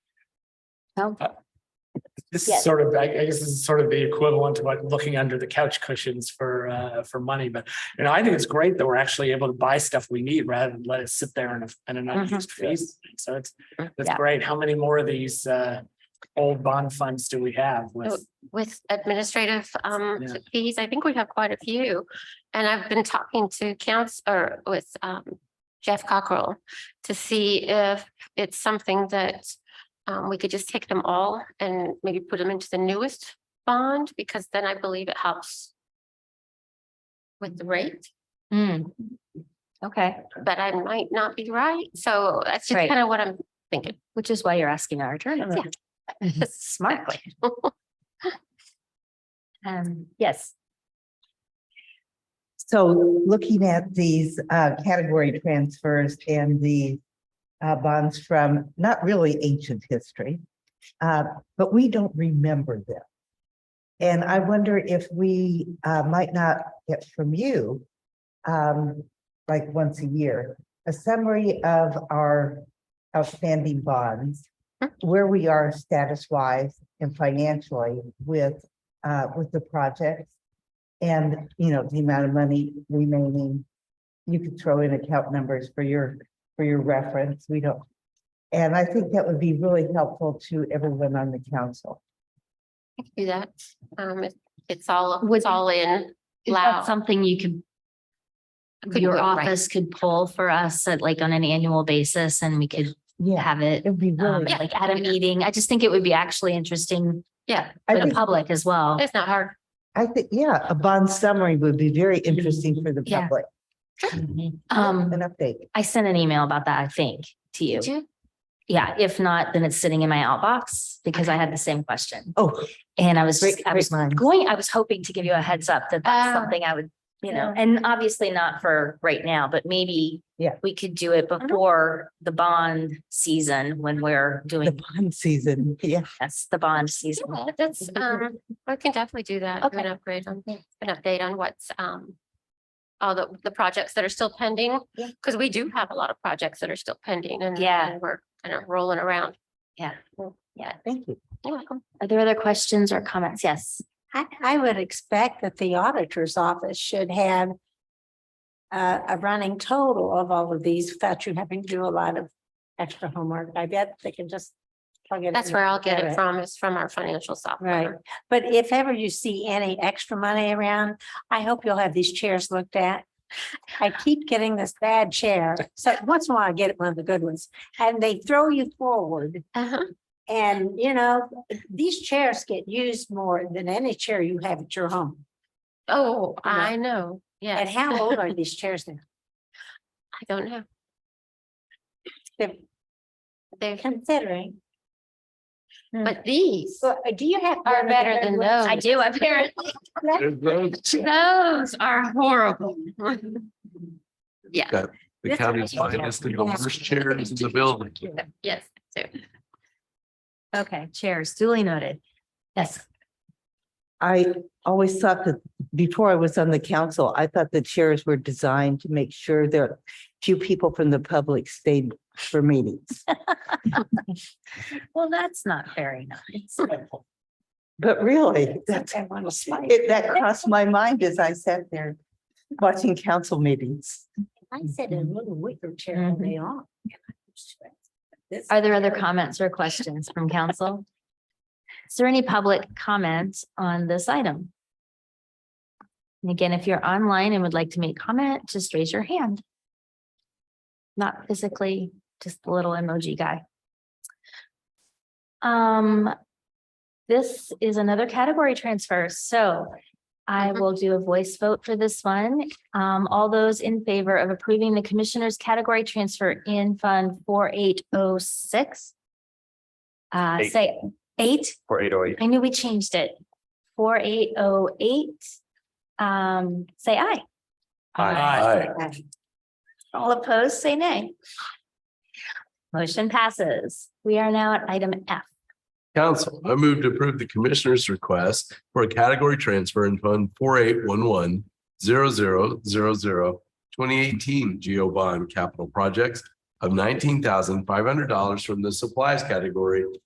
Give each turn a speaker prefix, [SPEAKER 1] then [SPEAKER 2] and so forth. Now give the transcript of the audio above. [SPEAKER 1] Oh.
[SPEAKER 2] This
[SPEAKER 1] Yeah.
[SPEAKER 2] is sort of, I I guess this is sort of the equivalent to like looking under the couch cushions for, uh, for money, but, you know, I think it's great that we're actually able to buy stuff we need rather than let it sit there in a, in an
[SPEAKER 1] Mhm.
[SPEAKER 2] unused phase. So it's, that's
[SPEAKER 1] Yeah,
[SPEAKER 2] great. How many more of these, uh, old bond funds do we have with?
[SPEAKER 3] with administrative um
[SPEAKER 2] Yeah.
[SPEAKER 3] fees. I think we have quite a few. And I've been talking to counts or with um Jeff Cockrell to see if it's something that um we could just take them all and maybe put them into the newest bond because then I believe it helps with the rate,
[SPEAKER 1] Hmm.
[SPEAKER 4] Mm.
[SPEAKER 1] Okay,
[SPEAKER 3] but I might not be right. So that's just
[SPEAKER 1] Right.
[SPEAKER 3] kind of what I'm thinking.
[SPEAKER 1] which is why you're asking our attorney. Smartly. Um, yes,
[SPEAKER 5] So looking at these uh category transfers and the uh bonds from not really ancient history, uh, but we don't remember them. And I wonder if we uh might not get from you um like once a year, a summary of our outstanding bonds, where we are status wise and financially with uh with the projects. And, you know, the amount of money remaining, you could throw in account numbers for your, for your reference, we don't. And I think that would be really helpful to everyone on the council.
[SPEAKER 3] I can Do that. Um, it- it's all,
[SPEAKER 4] Would-
[SPEAKER 3] it's all in.
[SPEAKER 4] Is
[SPEAKER 3] Loud.
[SPEAKER 4] that something you could,
[SPEAKER 3] Could
[SPEAKER 4] your
[SPEAKER 3] go right.
[SPEAKER 4] office could pull for us at like on an annual basis and we could
[SPEAKER 5] Yeah,
[SPEAKER 4] have it
[SPEAKER 5] it'd be
[SPEAKER 4] um,
[SPEAKER 5] really,
[SPEAKER 3] Yeah.
[SPEAKER 4] like at a meeting. I just think it would be actually interesting
[SPEAKER 3] Yeah,
[SPEAKER 5] I
[SPEAKER 4] for the
[SPEAKER 5] think,
[SPEAKER 4] public as well.
[SPEAKER 3] it's not hard.
[SPEAKER 5] I think, yeah, a bond summary would be very interesting for the
[SPEAKER 4] Yeah.
[SPEAKER 5] public,
[SPEAKER 4] Um,
[SPEAKER 5] an update.
[SPEAKER 4] I sent an email about that, I think, to you.
[SPEAKER 3] Did you?
[SPEAKER 4] Yeah, if not, then it's sitting in my outbox because I had the same question.
[SPEAKER 5] Oh,
[SPEAKER 4] And I was, just-
[SPEAKER 5] Great-
[SPEAKER 4] I was
[SPEAKER 5] great minds.
[SPEAKER 4] going, I was hoping to give you a heads up that that's
[SPEAKER 3] Ah.
[SPEAKER 4] something I would, you know,
[SPEAKER 3] Yeah.
[SPEAKER 4] and obviously not for right now, but maybe
[SPEAKER 5] Yeah.
[SPEAKER 4] we could do it before the bond season when we're
[SPEAKER 5] the
[SPEAKER 4] doing,
[SPEAKER 5] bond season, yeah.
[SPEAKER 4] that's the bond season.
[SPEAKER 3] Yeah, that's, um, I can definitely do that. do An
[SPEAKER 4] Okay.
[SPEAKER 3] upgrade on, an update on what's, um, all the, the projects that are still pending,
[SPEAKER 4] Yeah.
[SPEAKER 3] because we do have a lot of projects that are still pending and.
[SPEAKER 4] Yeah.
[SPEAKER 3] and We're kind of rolling around.
[SPEAKER 5] Thank you.
[SPEAKER 3] You're welcome.
[SPEAKER 4] Are there other questions or comments? Yes.
[SPEAKER 6] I, I would expect that the auditor's office should have a, a running total of all of these without you having to do a lot of extra homework. I bet they can just plug Mm-hmm. it in.
[SPEAKER 3] That's where I'll get it
[SPEAKER 6] Right.
[SPEAKER 3] from, is from our financial software.
[SPEAKER 6] Right. But if ever you see any extra money around, I hope you'll have these chairs looked at. I keep getting this bad chair. So once in a while I get one of the good ones and they throw you forward.
[SPEAKER 3] Uh-huh.
[SPEAKER 6] And you know, these chairs get used more than any chair you have at your home.
[SPEAKER 3] Oh,
[SPEAKER 6] You know.
[SPEAKER 3] I know, yeah.
[SPEAKER 6] And how old are these chairs now?
[SPEAKER 3] I don't know.
[SPEAKER 6] They're
[SPEAKER 3] They're,
[SPEAKER 6] Considering,
[SPEAKER 3] but these
[SPEAKER 6] so uh, do you have?
[SPEAKER 3] are better than those.
[SPEAKER 4] I do, apparently.
[SPEAKER 3] Those are horrible. Yeah.
[SPEAKER 7] The
[SPEAKER 6] That's
[SPEAKER 7] county's
[SPEAKER 6] right.
[SPEAKER 7] finest and the worst chairs in the building.
[SPEAKER 3] Yes, so.
[SPEAKER 4] Okay, chairs duly noted. Yes.
[SPEAKER 5] I always thought that before I was on the council, I thought the chairs were designed to make sure that few people from the public stayed for meetings.
[SPEAKER 4] Well, that's not very nice.
[SPEAKER 5] But really, that's,
[SPEAKER 6] That one was like,
[SPEAKER 5] it, that crossed my mind as I sat there watching council meetings.
[SPEAKER 6] I said a little wicker chair
[SPEAKER 3] Mm-hmm.
[SPEAKER 6] and they are. This-
[SPEAKER 4] Are there other comments or questions from council? Is there any public comment on this item? And again, if you're online and would like to make comment, just raise your hand. Not physically, just the little emoji guy. Um, this is another category transfer, so I
[SPEAKER 3] Mhm.
[SPEAKER 4] will do a voice vote for this one. Um, all those in favor of approving the commissioner's category transfer in Fund four eight oh six? Uh,
[SPEAKER 7] Eight.
[SPEAKER 4] say eight,
[SPEAKER 7] For eight oh eight.
[SPEAKER 4] I knew we changed it. Four eight oh eight, um, say aye.
[SPEAKER 2] Aye.
[SPEAKER 4] All opposed, say nay. Motion passes. We are now at item F.
[SPEAKER 7] Council, I move to approve the commissioner's request for a category transfer in fund four eight one one zero zero zero zero twenty eighteen Geo Bond Capital Projects of nineteen thousand five hundred dollars from the supplies category